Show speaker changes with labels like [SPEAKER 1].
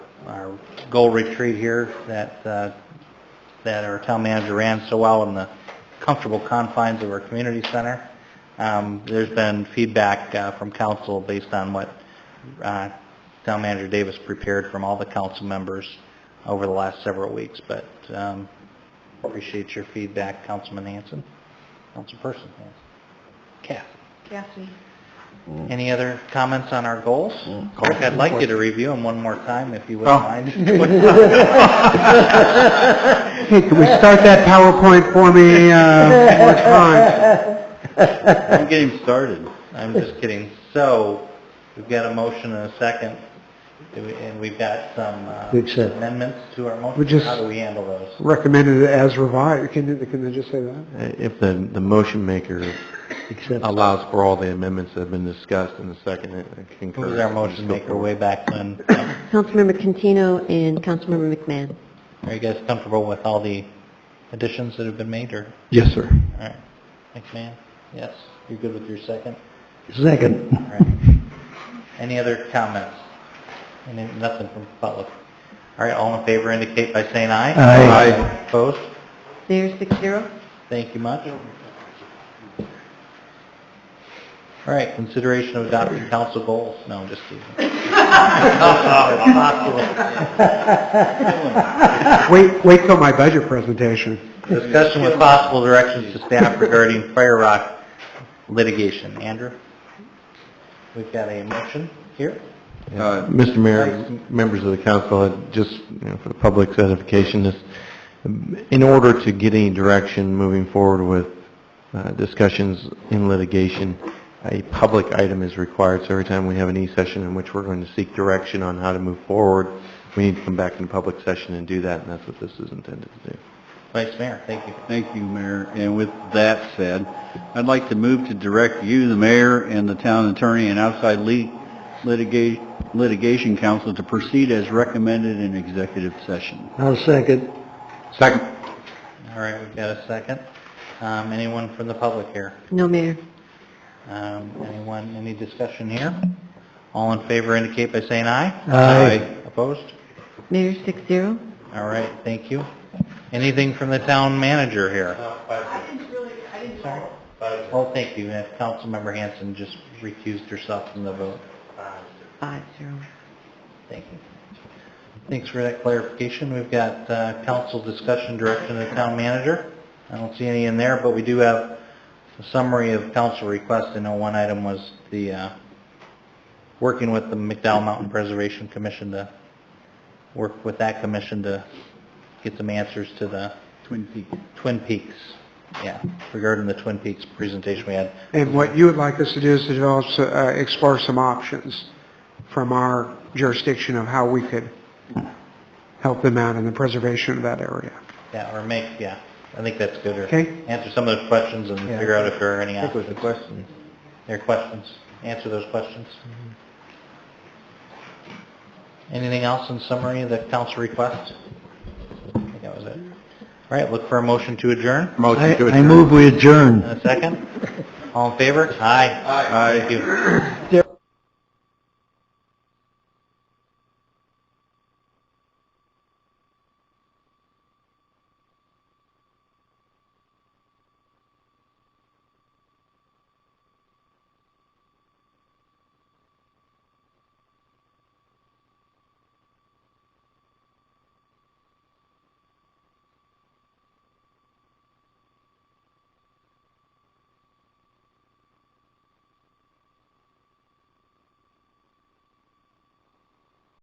[SPEAKER 1] our goal retreat here that, uh, that our town manager ran so well in the comfortable confines of our community center. Um, There's been feedback uh, from council based on what uh, town manager Davis prepared from all the council members over the last several weeks, but um, appreciate your feedback, Councilman Hanson, Councilperson Hanson. Kath?
[SPEAKER 2] Kathy.
[SPEAKER 1] Any other comments on our goals? Rick, I'd like you to review them one more time if you wouldn't
[SPEAKER 3] Oh.
[SPEAKER 1] mind.
[SPEAKER 3] Hey, can we start that PowerPoint for me, uh, one more time?
[SPEAKER 1] I'm getting started. I'm just kidding. So, we've got a motion and a second, Do we- and we've got some uh,
[SPEAKER 3] We accept.
[SPEAKER 1] amendments to our
[SPEAKER 3] We
[SPEAKER 1] motion.
[SPEAKER 3] just-
[SPEAKER 1] How do we handle those?
[SPEAKER 3] Recommended as revised, can, they- can they just say that?
[SPEAKER 4] Uh, If the, the motion maker
[SPEAKER 3] Except.
[SPEAKER 4] allows for all the amendments that have been discussed and the second uh,
[SPEAKER 1] Who
[SPEAKER 4] concurs.
[SPEAKER 1] was our motion maker way back when?
[SPEAKER 2] Councilmember Cantino and Councilmember McMahon.
[SPEAKER 1] Are you guys comfortable with all the additions that have been made, or,
[SPEAKER 4] Yes, sir.
[SPEAKER 1] all right, McMahon? Yes? You're good with your second?
[SPEAKER 3] Second.
[SPEAKER 1] All right. Any other comments? Any, nothing from the public? All right, all in favor indicate by saying aye.
[SPEAKER 3] Aye.
[SPEAKER 1] Opposed?
[SPEAKER 2] There's six zero.
[SPEAKER 1] Thank you much. All right, consideration of adopting council goals. No, I'm just teasing.
[SPEAKER 3] Wait, wait till my budget presentation.
[SPEAKER 1] Discussion with possible directions to staff regarding Fire Rock litigation. Andrew? We've got a motion here.
[SPEAKER 4] Uh, Mr. Mayor,
[SPEAKER 1] Thanks.
[SPEAKER 4] members of the council, I'd just you know, for the public's edification, this, in order to get any direction moving forward with uh, discussions in litigation, a public item is required, so every time we have an e-session in which we're going to seek direction on how to move forward, we need to come back in public session and do that, and that's what this is intended to do.
[SPEAKER 1] Vice Mayor, thank you.
[SPEAKER 5] Thank you, Mayor. And with that said, I'd like to move to direct you, the mayor, and the town attorney and outside le- litigation, litigation counsel to proceed as recommended in executive session.
[SPEAKER 3] I'll second.
[SPEAKER 5] Second.
[SPEAKER 1] All right, we've got a second. Um, Anyone from the public here?
[SPEAKER 2] No, Mayor.
[SPEAKER 1] Um, Anyone, any discussion here? All in favor indicate by saying aye.
[SPEAKER 3] Aye.
[SPEAKER 1] Opposed?
[SPEAKER 2] Mayor, six zero.
[SPEAKER 1] All right, thank you. Anything from the town manager here? Sorry? Oh, thank you. And Councilmember Hanson just recused herself from the vote.
[SPEAKER 2] Five zero.
[SPEAKER 1] Thank you. Thanks for that clarification. We've got uh, council discussion direction to the town manager. I don't see any in there, but we do have a summary of council requests. I know one item was the, uh, working with the McDowell Mountain Preservation Commission to work with that commission to get some answers to the
[SPEAKER 5] Twin Peaks.
[SPEAKER 1] Twin Peaks, yeah, regarding the Twin Peaks presentation we had.
[SPEAKER 3] And what you would like us to do is to develop, s- uh, explore some options from our jurisdiction of how we could help them out in the preservation of that area.
[SPEAKER 1] Yeah, or make, yeah, I think that's good, or
[SPEAKER 3] Okay.
[SPEAKER 1] answer some of those questions and
[SPEAKER 3] Yeah.
[SPEAKER 1] figure out if there are any
[SPEAKER 4] That was
[SPEAKER 1] options.
[SPEAKER 4] the question.
[SPEAKER 1] There are questions, answer those questions. Anything else in summary of the council request? I think that was it. All right, look for a motion to adjourn,
[SPEAKER 4] Motion to adjourn.
[SPEAKER 3] we adjourn.
[SPEAKER 1] and a second. All in favor? Aye. Aye. Thank you.